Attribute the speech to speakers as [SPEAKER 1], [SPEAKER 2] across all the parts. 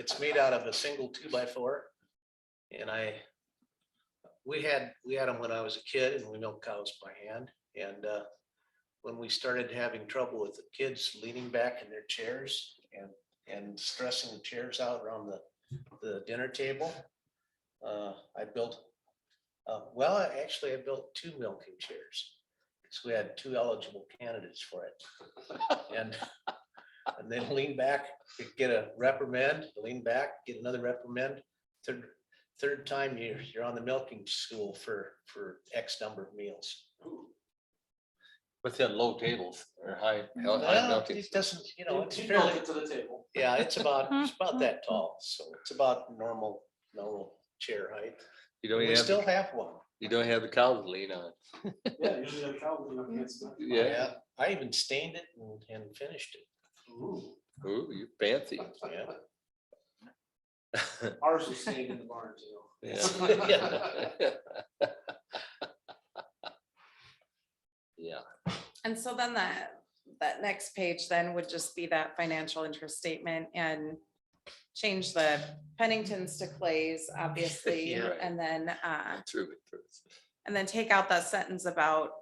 [SPEAKER 1] It's made out of a single two by four. And I, we had, we had them when I was a kid and we milked cows by hand. And uh, when we started having trouble with the kids leaning back in their chairs and, and stressing the chairs out around the, the dinner table, uh, I built, uh, well, I- actually I built two milking chairs. Because we had two eligible candidates for it. And, and then lean back you get a reprimand, lean back, get another reprimand. Third, third time you're, you're on the milking stool for, for X number of meals.
[SPEAKER 2] Within low tables or high, high
[SPEAKER 1] Well,
[SPEAKER 2] mountains.
[SPEAKER 1] it doesn't, you know, it's
[SPEAKER 3] You
[SPEAKER 1] fairly,
[SPEAKER 3] it to the table.
[SPEAKER 1] yeah, it's about, it's about that tall, so it's about normal, normal chair height.
[SPEAKER 2] You don't
[SPEAKER 1] We
[SPEAKER 2] even have,
[SPEAKER 1] still
[SPEAKER 2] the-
[SPEAKER 1] have one.
[SPEAKER 2] you don't have the cows to lean on.
[SPEAKER 3] Yeah, usually a cow would be up against that.
[SPEAKER 2] Yeah.
[SPEAKER 1] I even stained it and, and finished it.
[SPEAKER 3] Ooh.
[SPEAKER 2] Ooh, you fancy.
[SPEAKER 1] Yeah.
[SPEAKER 3] Ours was staying in the barn too.
[SPEAKER 2] Yeah. Yeah,
[SPEAKER 4] And so then that, that next page then would just be that financial interest statement and change the Penningtons to Clays, obviously,
[SPEAKER 2] Yeah.
[SPEAKER 4] and then, uh,
[SPEAKER 2] true, true.
[SPEAKER 4] and then take out that sentence about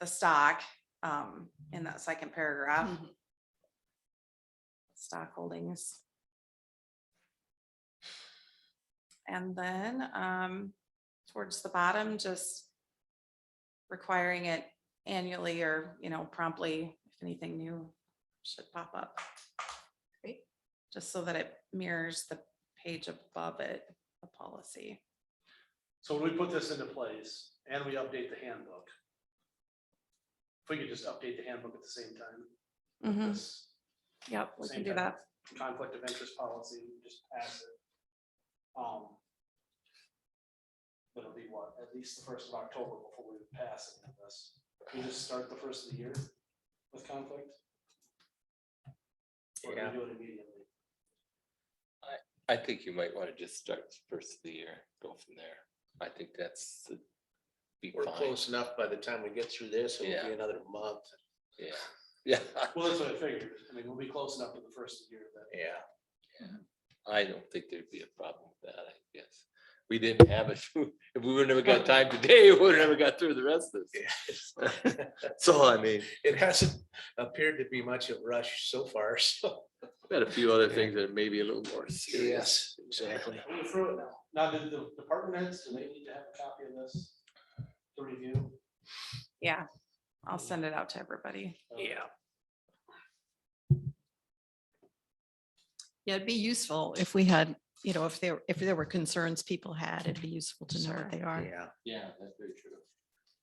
[SPEAKER 4] the stock, um, in that second paragraph. Stock holdings. And then, um, towards the bottom, just requiring it annually or, you know, promptly, if anything new should pop up.
[SPEAKER 5] Great.
[SPEAKER 4] Just so that it mirrors the page above it, the policy.
[SPEAKER 3] So when we put this into place and we update the handbook. If we could just update the handbook at the same time,
[SPEAKER 4] Mm-hmm.
[SPEAKER 3] this
[SPEAKER 4] Yep, we
[SPEAKER 3] Same
[SPEAKER 4] can do
[SPEAKER 3] time.
[SPEAKER 4] that.
[SPEAKER 3] conflict of interest policy, just pass it. Um. But it'll be what, at least the first of October before we pass any of this. We just start the first of the year with conflict. Or do
[SPEAKER 1] Yeah.
[SPEAKER 3] we do it immediately?
[SPEAKER 2] I think you might want to just start first of the year, go from there. I think that's the- be
[SPEAKER 1] We're
[SPEAKER 2] fine.
[SPEAKER 1] close enough by the time we get through this, it'll
[SPEAKER 2] Yeah.
[SPEAKER 1] be another month.
[SPEAKER 2] Yeah, yeah,
[SPEAKER 3] Well, that's what I figured. I mean, we'll be close enough to the first of the year that.
[SPEAKER 1] Yeah.
[SPEAKER 2] I don't think there'd be a problem with that, I guess. We didn't have it. If we would never got time today, we would never got through the rest of this. So I mean,
[SPEAKER 1] It hasn't appeared to be much of a rush so far, so.
[SPEAKER 2] we had a few other things that are maybe a little more serious.
[SPEAKER 1] Exactly.
[SPEAKER 3] We're through it now. Now, the, the department heads, do they need to have a copy of this to review?
[SPEAKER 4] Yeah, I'll send it out to everybody.
[SPEAKER 5] Yeah, it'd be useful if we had, you know, if there, if there were concerns people had, it'd be useful to know
[SPEAKER 4] Sure.
[SPEAKER 5] what they are.
[SPEAKER 1] Yeah.
[SPEAKER 2] Yeah, that's very true.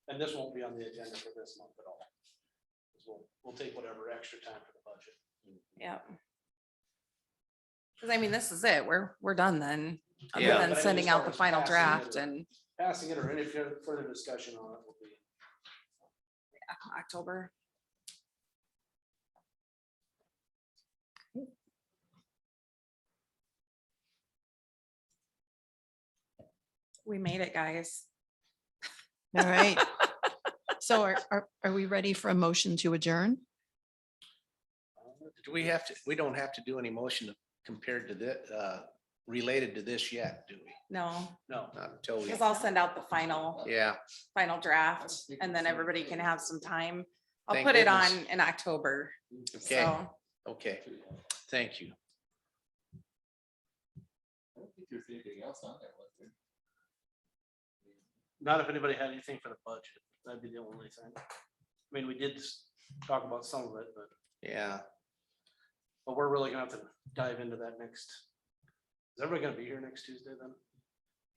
[SPEAKER 3] And this won't be on the agenda for this month at all. 'Cause We'll, we'll take whatever extra time for the budget.
[SPEAKER 4] Yep. Cause I mean, this is it. We're, we're done then. Other
[SPEAKER 1] Yeah.
[SPEAKER 4] than
[SPEAKER 3] But I
[SPEAKER 4] sending
[SPEAKER 3] just
[SPEAKER 4] out the
[SPEAKER 3] wanted to
[SPEAKER 4] final
[SPEAKER 3] pass it
[SPEAKER 4] draft
[SPEAKER 3] over.
[SPEAKER 4] in
[SPEAKER 3] Passing it or any fur- further discussion on it will be.
[SPEAKER 4] uh, October. We made it, guys.
[SPEAKER 5] All right. So are, are, are we ready for a motion to adjourn?
[SPEAKER 1] Do we have to, we don't have to do any motion compared to the, uh, related to this yet, do we?
[SPEAKER 4] No,
[SPEAKER 3] No,
[SPEAKER 1] Not until we,
[SPEAKER 4] cause I'll send out the final,
[SPEAKER 1] yeah,
[SPEAKER 4] final draft
[SPEAKER 2] think
[SPEAKER 4] and
[SPEAKER 2] it's
[SPEAKER 4] then
[SPEAKER 2] in-
[SPEAKER 4] everybody can have some time. I'll
[SPEAKER 1] Thank
[SPEAKER 4] put it on
[SPEAKER 1] goodness.
[SPEAKER 4] in October.
[SPEAKER 1] Okay.
[SPEAKER 4] So.
[SPEAKER 1] okay,
[SPEAKER 2] I don't
[SPEAKER 1] thank you.
[SPEAKER 2] think there's anything else on there, was there?
[SPEAKER 3] not if anybody had anything for the budget. That'd be the only thing. I mean, we did s- talk about some of it, but,
[SPEAKER 1] Yeah,
[SPEAKER 3] but we're really gonna have to dive into that next. Is everybody gonna be here next Tuesday then?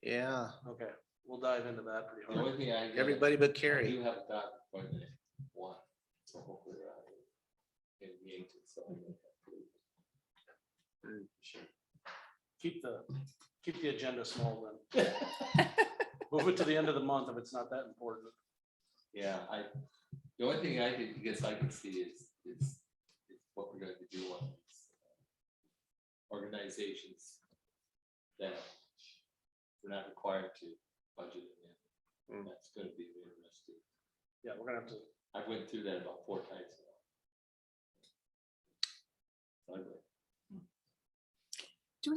[SPEAKER 1] yeah,
[SPEAKER 3] Okay, we'll dive into that pretty
[SPEAKER 2] The
[SPEAKER 3] hard.
[SPEAKER 2] only thing I. did-
[SPEAKER 1] everybody but
[SPEAKER 2] I
[SPEAKER 1] Carrie.
[SPEAKER 2] do have a doctor appointment at one, so hopefully we're out in the eight, so I'm gonna have to leave.
[SPEAKER 3] Keep the, keep the agenda small then. Move it to the end of the month if it's not that important.
[SPEAKER 2] Yeah, I, the only thing I can, guess I can see is, is, is what we're going to do on these uh, organizations that we're not required to budget in.
[SPEAKER 1] Mm.
[SPEAKER 2] That's gonna be interesting.
[SPEAKER 3] Yeah, we're gonna have to,
[SPEAKER 2] I went through that about four times. now. Ugly.